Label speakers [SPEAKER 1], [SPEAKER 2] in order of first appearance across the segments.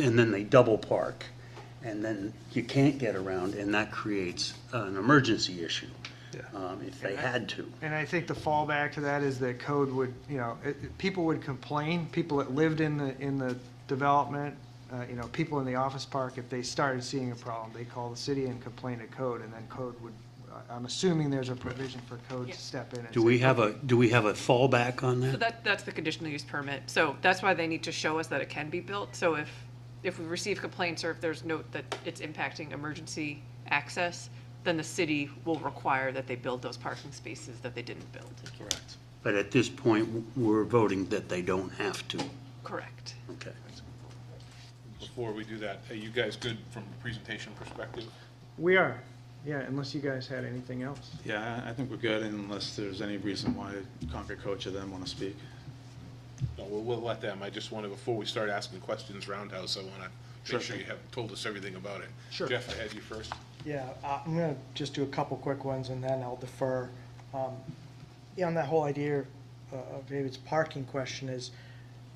[SPEAKER 1] and then they double park, and then you can't get around, and that creates an emergency issue, um, if they had to.
[SPEAKER 2] And I think the fallback to that is that code would, you know, it- it- people would complain, people that lived in the, in the development, uh, you know, people in the office park, if they started seeing a problem, they call the city and complain to code, and then code would, I- I'm assuming there's a provision for code
[SPEAKER 3] Yeah.
[SPEAKER 2] to step in and
[SPEAKER 1] Do we have a, do we have a fallback on
[SPEAKER 3] So
[SPEAKER 1] that?
[SPEAKER 3] that, that's the conditional use permit. So that's why they need to show us that it can be built. So if, if we receive complaints or if there's note that it's impacting emergency access, then the city will require that they build those parking spaces that they didn't build.
[SPEAKER 1] But at this point, we're voting that they don't have to.
[SPEAKER 3] Correct.
[SPEAKER 1] Okay.
[SPEAKER 4] Before we do that, are you guys good from a presentation perspective?
[SPEAKER 2] We are, yeah, unless you guys had anything else.
[SPEAKER 5] Yeah, I I think we're good unless there's any reason why Concord Coach or them want to speak.
[SPEAKER 4] No, we'll, we'll let them. I just want to, before we start asking questions roundhouse, I want to
[SPEAKER 5] Sure
[SPEAKER 4] make sure
[SPEAKER 5] thing.
[SPEAKER 4] you have told us everything about it.
[SPEAKER 2] Sure.
[SPEAKER 4] Jeff, I had you first.
[SPEAKER 6] Yeah, uh, I'm gonna just do a couple quick ones and then I'll defer. Um, yeah, on that whole idea uh, of David's parking question is,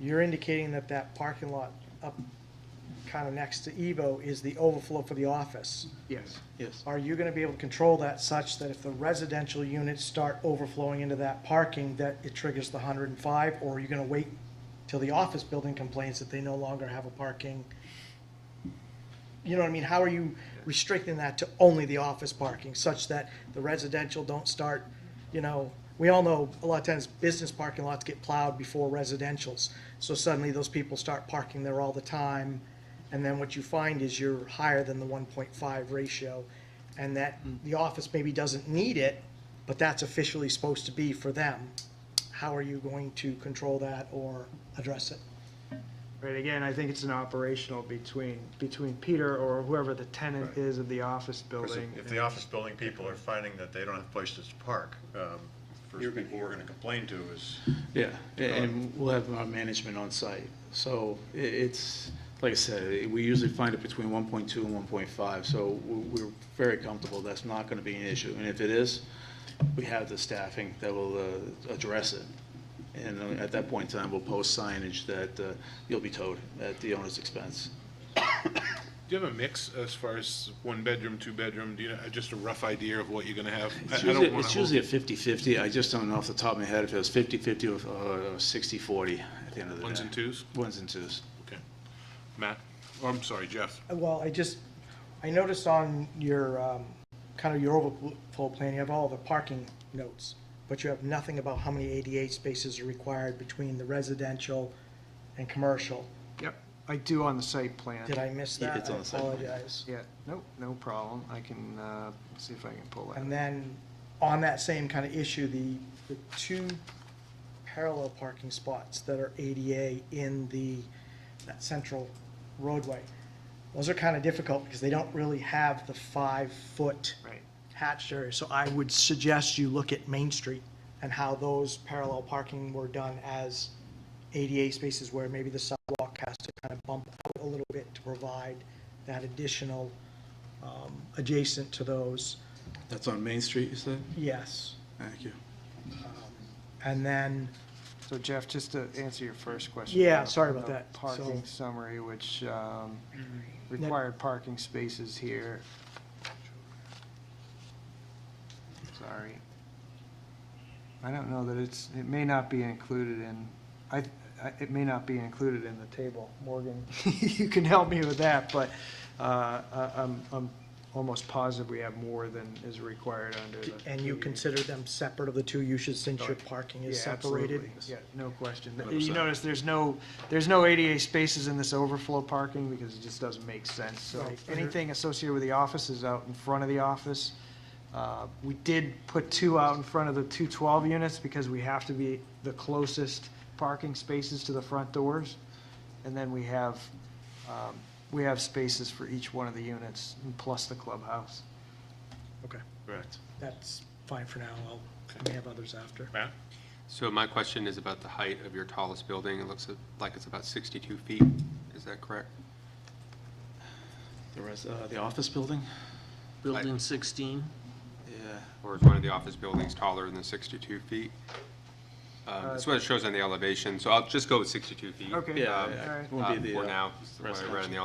[SPEAKER 6] you're indicating that that parking lot up kind of next to Evo is the overflow for the office.
[SPEAKER 2] Yes.
[SPEAKER 5] Yes.
[SPEAKER 6] Are you gonna be able to control that such that if the residential units start overflowing into that parking, that it triggers the hundred and five? Or are you gonna wait till the office building complains that they no longer have a parking? You know what I mean? How are you restricting that to only the office parking such that the residential don't start, you know, we all know a lot of times business parking lots get plowed before residential's. So suddenly those people start parking there all the time. And then what you find is you're higher than the one point five ratio and that the office maybe doesn't need it, but that's officially supposed to be for them. How are you going to control that or address it?
[SPEAKER 2] Right, again, I think it's an operational between, between Peter or whoever the tenant is of the office
[SPEAKER 7] Because
[SPEAKER 2] building.
[SPEAKER 7] if- if the office building people are finding that they don't have places to park, um, first people we're gonna complain to is,
[SPEAKER 5] Yeah, a- and we'll have our management on site. So i- it's, like I said, we usually find it between 1.2 and 1.5, so we- we're very comfortable that's not going to be an issue. And if it is, we have the staffing that will uh, address it. And uh, at that point in time, we'll post signage that uh, you'll be towed at the owner's expense.
[SPEAKER 4] Do you have a mix as far as one bedroom, two bedroom? Do you, know just a rough idea of what you're going to have? I-
[SPEAKER 5] It's
[SPEAKER 4] I don't
[SPEAKER 5] usually,
[SPEAKER 4] wanna
[SPEAKER 5] it's
[SPEAKER 4] hold-
[SPEAKER 5] usually a 50/50. I just don't know off the top of my head if it was 50/50 or uh, 60/40 at the end of the day.
[SPEAKER 4] Ones and twos?
[SPEAKER 5] Ones and twos.
[SPEAKER 4] Okay. Matt? Oh, I'm sorry, Jeff.
[SPEAKER 6] Well, I just, I noticed on your, um, kind of your overflow plan, you have all the parking notes, but you have nothing about how many ADA spaces are required between the residential and commercial.
[SPEAKER 2] Yep, I do on the site plan.
[SPEAKER 6] Did I miss
[SPEAKER 5] Yeah,
[SPEAKER 6] that?
[SPEAKER 5] it's on the site
[SPEAKER 6] I
[SPEAKER 5] plan.
[SPEAKER 6] apologize.
[SPEAKER 2] Yeah, nope, no problem. I can, uh, see if I can pull that. up.
[SPEAKER 6] And then, on that same kind of issue, the, the two parallel parking spots that are ADA in the, that central roadway, those are kind of difficult because they don't really have the five-foot
[SPEAKER 2] Right.
[SPEAKER 6] hatched area. So I would suggest you look at Main Street and how those parallel parking were done as ADA spaces where maybe the sidewalk has to kind of bump out a little bit to provide that additional, um, adjacent to those,
[SPEAKER 5] That's on Main Street, you said?
[SPEAKER 6] yes.
[SPEAKER 5] Thank you.
[SPEAKER 6] And then,
[SPEAKER 2] So Jeff, just to answer your first question.
[SPEAKER 6] Yeah, sorry about
[SPEAKER 2] the
[SPEAKER 6] that.
[SPEAKER 2] Parking
[SPEAKER 6] So- Mm-hmm.
[SPEAKER 2] summary, which um, required parking spaces here. Sorry. I don't know that it's, it may not be included in, I, I- it may not be included in the table. Morgan, you can help me with that, but uh, I- I'm, I'm almost positive we have more than is required under the.
[SPEAKER 6] and you
[SPEAKER 2] consider.
[SPEAKER 6] consider them separate of the two uses since your parking
[SPEAKER 2] Yeah,
[SPEAKER 6] is separated? uh,
[SPEAKER 2] absolutely. Yeah, no question.
[SPEAKER 5] Hundred
[SPEAKER 2] You
[SPEAKER 5] percent.
[SPEAKER 2] notice there's no, there's no ADA spaces in this overflow parking because it just doesn't make sense. So
[SPEAKER 6] Right.
[SPEAKER 2] anything associated with the office is out in front of the office. Uh, We did put two out in front of the two twelve units because we have to be the closest parking spaces to the front doors. And then we have, um, we have spaces for each one of the units, plus the clubhouse.
[SPEAKER 6] Okay,
[SPEAKER 5] Correct.
[SPEAKER 6] that's fine for now. I'll, I may have others after.
[SPEAKER 4] Matt?
[SPEAKER 8] So my question is about the height of your tallest building. It looks like it's about 62 feet. Is that correct?
[SPEAKER 5] The res, uh, the office building?
[SPEAKER 8] Building
[SPEAKER 9] 16?
[SPEAKER 5] Yeah.
[SPEAKER 8] Or is one of the office buildings taller than 62 feet? Um, That's what it shows on the elevation, so I'll just go with 62 feet.
[SPEAKER 2] Okay,
[SPEAKER 5] Yeah,
[SPEAKER 8] um,
[SPEAKER 5] I- I
[SPEAKER 2] alright.
[SPEAKER 5] won't be
[SPEAKER 8] uh,
[SPEAKER 5] the,
[SPEAKER 8] For
[SPEAKER 5] uh,
[SPEAKER 8] now, is the way I read on the